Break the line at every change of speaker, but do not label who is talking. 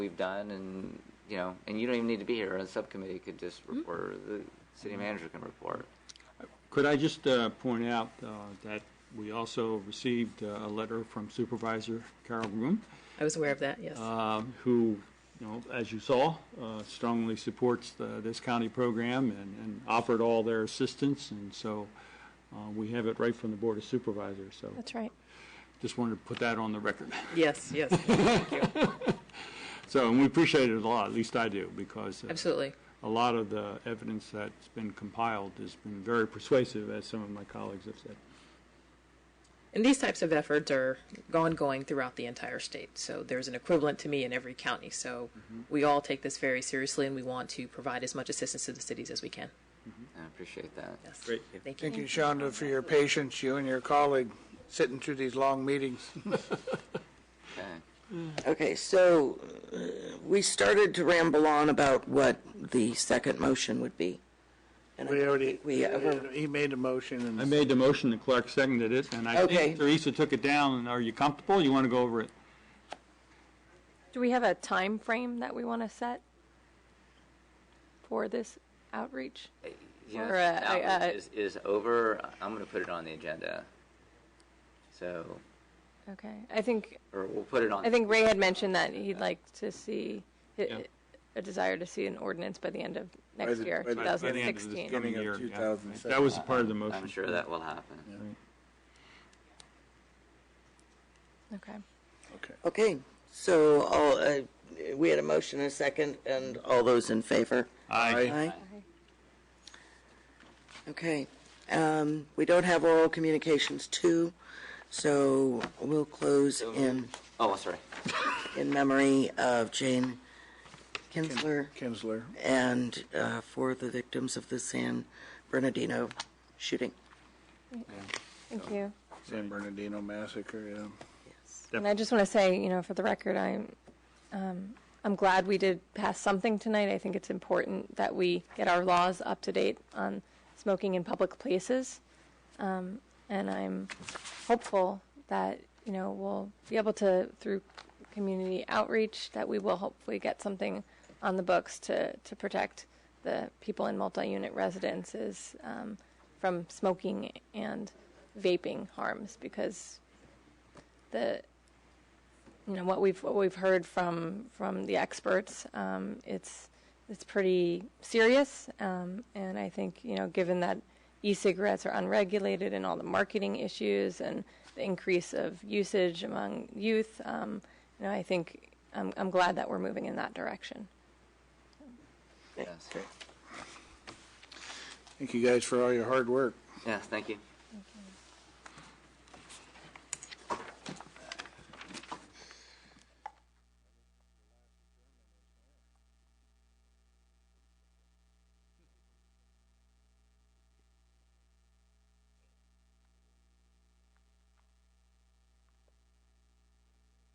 we've done and, you know, and you don't even need to be here. A subcommittee could just
Hmm.
report, or the city manager can report.
Could I just uh, point out uh, that we also received uh, a letter from Supervisor Carol Groom,
I was aware of that, yes.
um, who, you know, as you saw, uh, strongly supports the- this county program and and offered all their assistance, and so uh, we have it right from the Board of Supervisors, so
That's right.
just wanted to put that on the record.
Yes, yes, thank you.
So, and we appreciate it a lot, at least I do, because uh,
Absolutely.
a lot of the evidence that's been compiled has been very persuasive, as some of my colleagues have said.
And these types of efforts are ongoing throughout the entire state. So there's an equivalent to me in every county. So we all take this very seriously and we want to provide as much assistance to the cities as we can.
I appreciate that.
Yes.
Great.
Thank you.
Thank you, Shonda, for your patience, you and your colleague, sitting through these long meetings.
Okay.
Okay, so uh, we started to ramble on about what the second motion would be. And I
We
don't
already,
think We, uh, ever-
he made a motion
I
and
made the motion, the clerk seconded it, and I
Okay.
think Teresa took it down, and are you comfortable? You want to go over it?
Do we have a time frame that we want to set for this outreach?
Yeah,
Or, uh, I-
outreach
uh,
is, is over. I'm going to put it on the agenda. So,
Okay, I think,
or we'll put it on.
I think Ray had mentioned that he'd like to see,
Yeah.
a desire to see an ordinance by the end of
By
next
the-
year,
by the- by the end of this coming
2016.
of
year, yeah.
2007.
That was a part of the motion.
I'm sure that will happen.
Okay.
okay, so all, uh, we had a motion and a second, and all those in favor?
Aye.
Aye. Okay, um, we don't have oral communications two, so we'll close in,
Oh, sorry.
in memory of Jane Kinsler
Kinsler.
and uh, for the victims of the San Bernardino shooting.
Thank you.
San Bernardino massacre, yeah.
And I just want to say, you know, for the record, I'm, um, I'm glad we did pass something tonight. I think it's important that we get our laws up to date on smoking in public places. Um, and I'm hopeful that, you know, we'll be able to, through community outreach, that we will hopefully get something on the books to, to protect the people in multi-unit residences, um, from smoking and vaping harms because the you know what we've what we've heard from from the experts um, it's it's pretty serious um, and I think you know given that e-cigarettes are unregulated and all the marketing issues and the increase of usage among youth um, you know I think I'm, I'm glad that we're moving in that direction
Yes.
Thank you guys for all your hard work.
Yes, thank you.